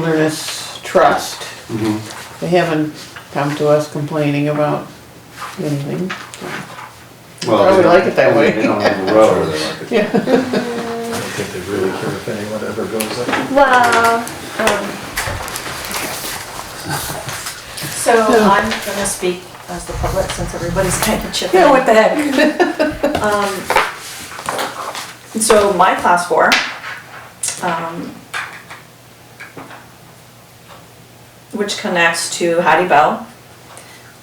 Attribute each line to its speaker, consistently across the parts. Speaker 1: Wilderness Trust.
Speaker 2: Mhm.
Speaker 1: They haven't come to us complaining about anything.
Speaker 2: Well,
Speaker 1: Probably
Speaker 2: they don't-
Speaker 1: like it that way.
Speaker 2: They don't have a road.
Speaker 1: Yeah,
Speaker 3: I don't think they really care if anyone ever goes up.
Speaker 4: Well, um.
Speaker 5: So I'm gonna speak as the public since everybody's kind of chipping.
Speaker 4: Yeah,
Speaker 5: in. Um,
Speaker 4: what the heck?
Speaker 5: So my class four, um, which connects to Hattie Bell,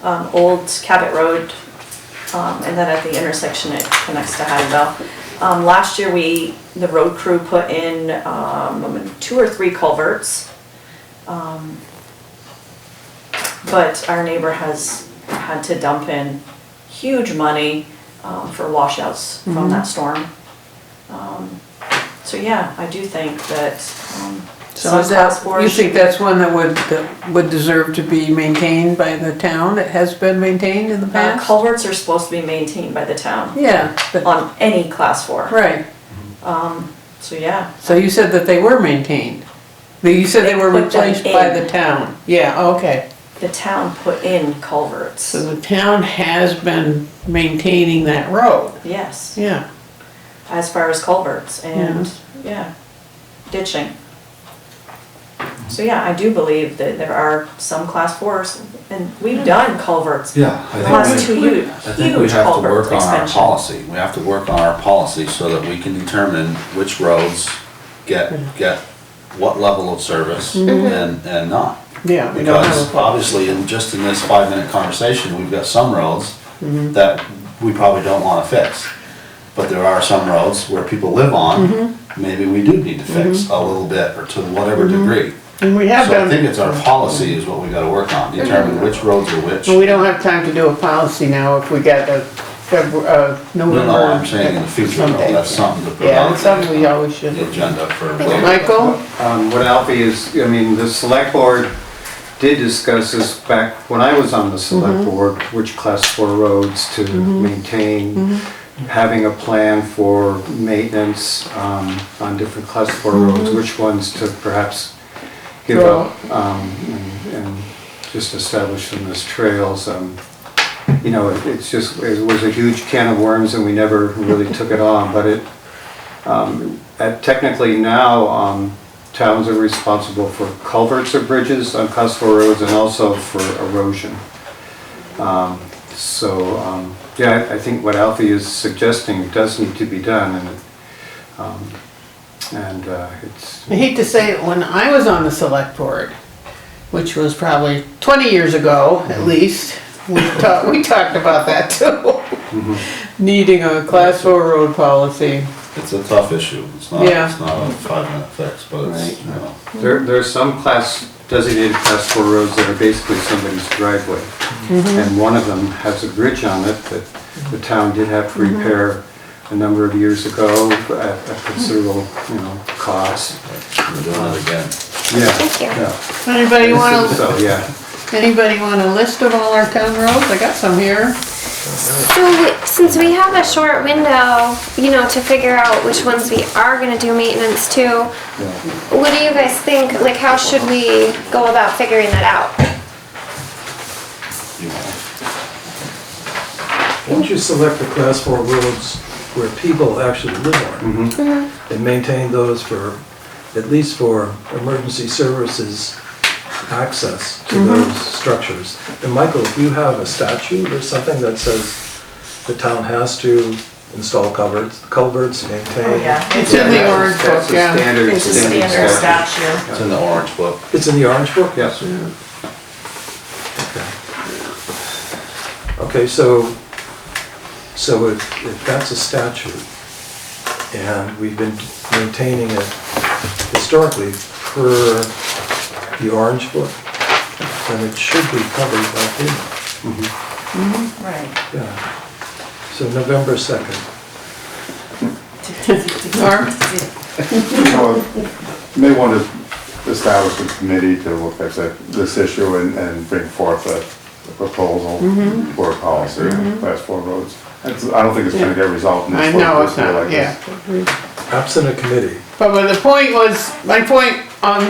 Speaker 5: um, Old Cabot Road, um, and then at the intersection it connects to Hattie Bell. Um, last year we, the road crew put in, um, two or three culverts. um, But our neighbor has had to dump in huge money, um, for washouts from
Speaker 1: Mm-hmm.
Speaker 5: that storm. Um, So yeah, I do think that, um,
Speaker 1: so
Speaker 5: some
Speaker 1: is
Speaker 5: class
Speaker 1: that,
Speaker 5: four
Speaker 1: you
Speaker 5: should
Speaker 1: think that's one that would, that would deserve to be maintained by the town? It has been maintained in the
Speaker 5: Uh,
Speaker 1: past?
Speaker 5: culverts are supposed to be maintained by the town
Speaker 1: Yeah, but-
Speaker 5: on any class four,
Speaker 1: right.
Speaker 5: so yeah.
Speaker 1: So you said that they were maintained. But You said they were
Speaker 5: They put them
Speaker 1: replaced by
Speaker 5: in.
Speaker 1: the town. Yeah, okay.
Speaker 5: The town put in culverts,
Speaker 1: So the town has been maintaining that road.
Speaker 5: yes,
Speaker 1: Yeah,
Speaker 5: as far as culverts and, yeah, ditching. So yeah, I do believe that there are some class fours, and we've done culverts, the
Speaker 2: Yeah, I
Speaker 5: last
Speaker 2: think we,
Speaker 5: two huge,
Speaker 2: I think we
Speaker 5: huge
Speaker 2: have to
Speaker 5: culvert
Speaker 2: work on our
Speaker 5: expansion.
Speaker 2: policy. We have to work on our policy so that we can determine which roads get,
Speaker 5: Mm-hmm.
Speaker 2: get what level of service and, and not.
Speaker 1: yeah. we don't have a
Speaker 2: Because
Speaker 1: pub.
Speaker 2: obviously, in, just in this five-minute conversation, we've got some roads
Speaker 5: Mm-hmm.
Speaker 2: that we probably don't wanna fix. But there are some roads where people live on,
Speaker 5: Mm-hmm.
Speaker 2: maybe we do need to fix a little bit or to whatever degree.
Speaker 1: And we have
Speaker 2: So I think
Speaker 1: done,
Speaker 2: it's our policy is what we gotta work on, determine which roads are which.
Speaker 1: but we don't have time to do a policy now if we got a February, uh, November.
Speaker 2: No, no, I'm saying in the future, no,
Speaker 1: someday.
Speaker 2: that's something to put
Speaker 1: Yeah,
Speaker 2: on
Speaker 1: it's something we always should.
Speaker 2: the agenda for later.
Speaker 1: Michael?
Speaker 6: Um, What Alfie is, I mean, the select board did discuss this back when I was on the select board, which class four roads to maintain, having a plan for maintenance um, on different class four roads, which ones to perhaps give up um, and and just establish them as trails. um, You know, it- it's just, it was a huge can of worms and we never really took it on, but it, uh, Technically now, um, towns are responsible for culverts or bridges on class four roads and also for erosion. Um, So, um, yeah, I I think what Alfie is suggesting does need to be done and, um, and uh, it's,
Speaker 1: I hate to say it, when I was on the select board, which was probably twenty years ago
Speaker 2: Mm-hmm.
Speaker 1: at least, we talked, we talked about that too.
Speaker 2: Mm-hmm.
Speaker 1: Needing a class four road policy.
Speaker 2: It's a tough issue, it's not,
Speaker 1: Yeah.
Speaker 2: it's not a five-minute fix, but it's, you know.
Speaker 6: there there are some class, designated class four roads that are basically somebody's driveway. And one of them has a bridge on it that the town did have to repair a number of years ago at a considerable, you know, cost.
Speaker 2: We're doing it again.
Speaker 6: Yeah.
Speaker 4: Thank you.
Speaker 6: yeah.
Speaker 1: Anybody wanna,
Speaker 6: So, yeah.
Speaker 1: anybody wanna list of all our town roads? I got some here.
Speaker 4: So, we- since we have a short window, you know, to figure out which ones we are gonna do maintenance to, what do you guys think, like, how should we go about figuring that out?
Speaker 2: You know.
Speaker 3: Why don't you select the class four roads where people actually live on? And maintain those for, at least for emergency services access to those structures. And Michael, if you have a statute or something that says the town has to install culverts, culverts,
Speaker 5: Oh,
Speaker 3: maintain.
Speaker 5: yeah,
Speaker 1: It's in the
Speaker 6: Yeah,
Speaker 1: orange
Speaker 6: that's
Speaker 1: book,
Speaker 6: a
Speaker 1: yeah.
Speaker 6: standard-
Speaker 5: it's a standard statute.
Speaker 2: It's in the orange book.
Speaker 3: It's in the orange book?
Speaker 6: Yes.
Speaker 3: Okay, so, so if, if that's a statute, and we've been maintaining it historically per the orange book, then it should be covered by FEMA,
Speaker 6: Mm-hmm.
Speaker 5: Right.
Speaker 3: yeah. So November second,
Speaker 1: Norm?
Speaker 7: Well, you May want to establish a committee to look at the- this issue and, and bring forth a a proposal
Speaker 1: Mm-hmm.
Speaker 7: for a policy on class four roads. That's- I don't think it's gonna get resolved in
Speaker 1: I
Speaker 7: this.
Speaker 1: know
Speaker 7: one
Speaker 1: it's not,
Speaker 7: like this.
Speaker 1: yeah.
Speaker 3: absent a committee,
Speaker 1: But the point was, my point on